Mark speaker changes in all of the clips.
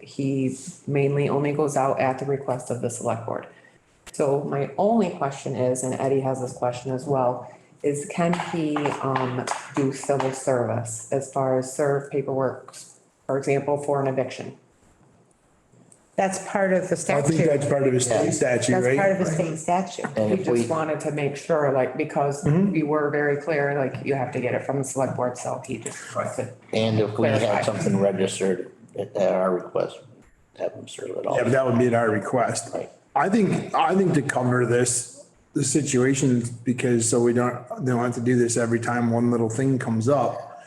Speaker 1: he mainly only goes out at the request of the select board. So my only question is, and Eddie has this question as well, is can he, um, do civil service as far as serve paperwork, for example, for an eviction?
Speaker 2: That's part of the
Speaker 3: I think
Speaker 2: statute.
Speaker 3: that's part of the state statute,
Speaker 2: That's
Speaker 3: right?
Speaker 2: part of the state statute.
Speaker 1: We just wanted to make sure, like, because we were very clear, like, you have to get it from the select board, so he just.
Speaker 4: And if we
Speaker 1: Clarify.
Speaker 4: have something registered at at our request, have them serve it all.
Speaker 3: Yeah, but that would be at our request.
Speaker 4: Right.
Speaker 3: I think, I think to cover this, the situation, because so we don't, don't have to do this every time one little thing comes up.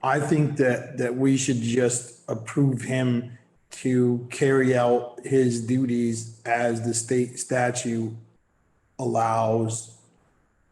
Speaker 3: I think that, that we should just approve him to carry out his duties as the state statute allows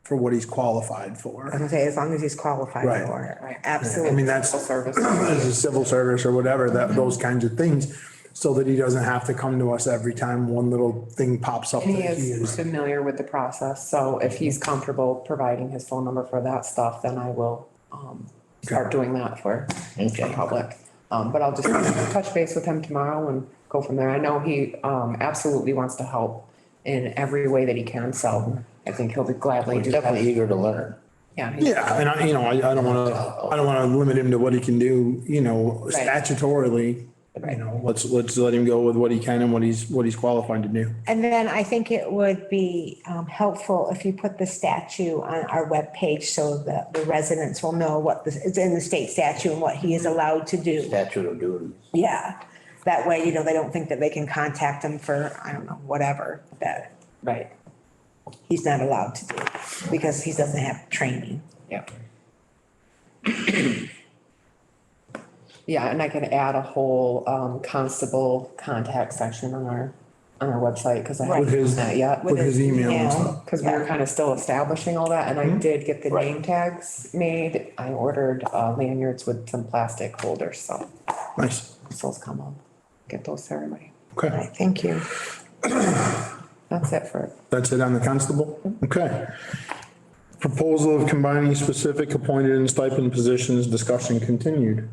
Speaker 3: for what he's qualified for.
Speaker 2: I'm saying, as long as he's qualified
Speaker 3: Right.
Speaker 2: for it,
Speaker 3: I mean,
Speaker 2: absolutely.
Speaker 3: that's.
Speaker 1: Civil service.
Speaker 3: as a civil service or whatever, that, those kinds of things. So that he doesn't have to come to us every time one little thing pops up.
Speaker 1: And he
Speaker 3: that he
Speaker 1: is
Speaker 3: is-
Speaker 1: familiar with the process, so if he's comfortable providing his phone number for that stuff, then I will, um, start doing that for, for
Speaker 4: Okay.
Speaker 1: public. Um, but I'll just touch base with him tomorrow and go from there. I know he, um, absolutely wants to help in every way that he can, so I think he'll be gladly
Speaker 4: We're
Speaker 1: do
Speaker 4: definitely
Speaker 1: that.
Speaker 4: eager to learn.
Speaker 1: Yeah, he-
Speaker 3: Yeah, and I, you know, I, I don't wanna, I don't wanna limit him to what he can do, you know,
Speaker 1: Right.
Speaker 3: statutorily. You know, let's, let's let him go with what he can and what he's, what he's qualified to do.
Speaker 2: And then I think it would be um, helpful if you put the statute on our webpage so that the residents will know what this, it's in the state statute and what he
Speaker 3: Mm-hmm.
Speaker 2: is allowed to do.
Speaker 4: Statute of duties.
Speaker 2: Yeah. That way, you know, they don't think that they can contact him for, I don't know, whatever, that
Speaker 1: right,
Speaker 2: he's not allowed to do because he doesn't have training.
Speaker 1: yeah. Yeah, and I can add a whole, um, constable contact section on our, on our website, cause I
Speaker 2: Right.
Speaker 3: With
Speaker 1: haven't
Speaker 3: his-
Speaker 1: done that yet.
Speaker 3: With his email
Speaker 2: Yeah. Mm-hmm.
Speaker 3: and stuff.
Speaker 1: Cause we were kind of still establishing all that and I did get the name tags made. I ordered uh, lanyards with some plastic holders, so
Speaker 3: Nice.
Speaker 1: those come up. Get those ceremony.
Speaker 3: Okay,
Speaker 2: Right, Thank you.
Speaker 1: That's it for,
Speaker 3: that's it on the constable?
Speaker 1: Mm-hmm.
Speaker 3: Okay. Proposal of combining specific appointed and stipend positions, discussion continued.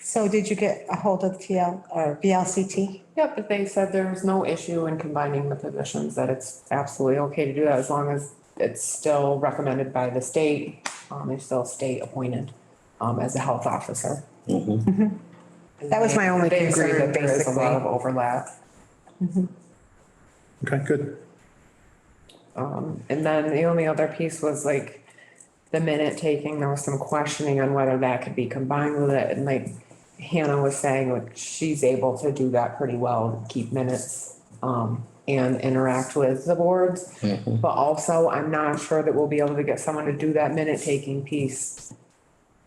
Speaker 2: So did you get a hold of TL, or VLCT?
Speaker 1: yeah, but they said there's no issue in combining the positions, that it's absolutely okay to do that as long as it's still recommended by the state. Um, they're still state appointed, um, as a health officer.
Speaker 2: That was my only
Speaker 1: They agree
Speaker 2: concern,
Speaker 1: that there is a lot of
Speaker 2: basically.
Speaker 1: overlap.
Speaker 3: Okay, good.
Speaker 1: Um, and then the only other piece was like the minute taking, there was some questioning on whether that could be combined with it. And like Hannah was saying, like she's able to do that pretty well, keep minutes, um, and interact with the boards.
Speaker 4: Mm-hmm.
Speaker 1: But also, I'm not sure that we'll be able to get someone to do that minute taking piece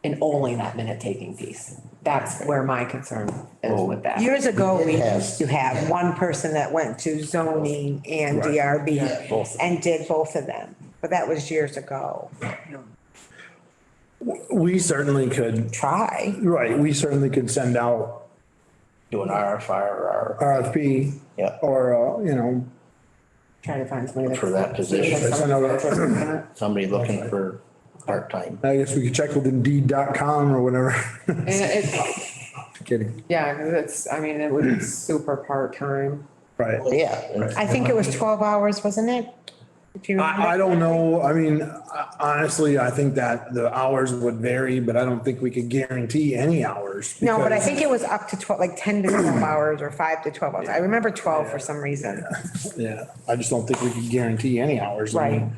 Speaker 1: and only that minute taking piece. That's where my concern is with that.
Speaker 2: Years ago, we used
Speaker 4: Yes.
Speaker 2: to have one person that went to zoning and DRB and did both of them, but that was years ago.
Speaker 3: We certainly could,
Speaker 2: Try.
Speaker 3: right, we certainly could send out
Speaker 4: Do an RFI or R,
Speaker 3: RFP.
Speaker 4: Yeah.
Speaker 3: Or, uh, you know,
Speaker 1: Trying to find somebody that's.
Speaker 4: For that position.
Speaker 1: That's someone that's interested in it.
Speaker 4: somebody looking for part-time.
Speaker 3: I guess we could check with indeed.com or whatever.
Speaker 1: And it's,
Speaker 3: Kidding,
Speaker 1: Yeah, because it's, I mean, it would be super part-time.
Speaker 3: right.
Speaker 4: Well, Yeah. and-
Speaker 2: I think it was twelve hours, wasn't it? If you remember.
Speaker 3: I, I don't know, I mean, I- honestly, I think that the hours would vary, but I don't think we could guarantee any hours.
Speaker 2: No, but I
Speaker 3: because-
Speaker 2: think it was up to twelve, like ten to twelve hours or five to twelve hours. I remember twelve for some reason.
Speaker 3: Yeah, I just don't think we could guarantee any hours. I mean,
Speaker 2: Right.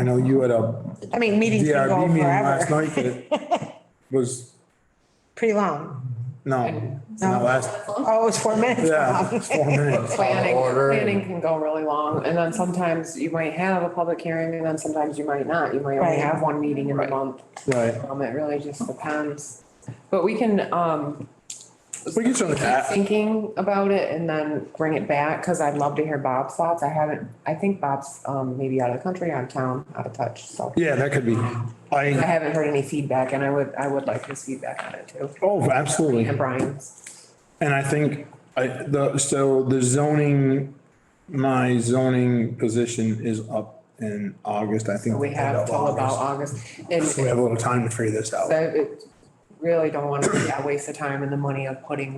Speaker 3: I know you had a
Speaker 2: I mean, meetings can go
Speaker 3: DRB meeting last
Speaker 2: forever,
Speaker 3: night that was,
Speaker 2: pretty long.
Speaker 3: no, not last,
Speaker 2: Oh, it was four minutes
Speaker 3: yeah,
Speaker 2: long.
Speaker 3: it's four minutes.
Speaker 1: Planning,
Speaker 4: order and-
Speaker 1: planning can go really long, and then sometimes you might have a public hearing, and then sometimes you might not. You might only
Speaker 2: Right.
Speaker 1: have one meeting in the month.
Speaker 3: Right,
Speaker 1: Um, it really just depends. But we can, um,
Speaker 3: we can certainly,
Speaker 1: keep thinking about it and then bring it back, because I'd love to hear Bob's thoughts. I haven't, I think Bob's, um, maybe out of the country, out of town, out of touch, so.
Speaker 3: yeah, that could be,
Speaker 1: I
Speaker 3: I,
Speaker 1: haven't heard any feedback, and I would, I would like his feedback on it too,
Speaker 3: oh, absolutely.
Speaker 1: and Brian's.
Speaker 3: And I think I, the, so the zoning, my zoning position is up in August, I think.
Speaker 1: We
Speaker 3: end
Speaker 1: have
Speaker 3: of
Speaker 1: till about
Speaker 3: August.
Speaker 1: August, and
Speaker 3: So we have a little time to figure this out.
Speaker 1: so it really don't want to, waste the time and the money of putting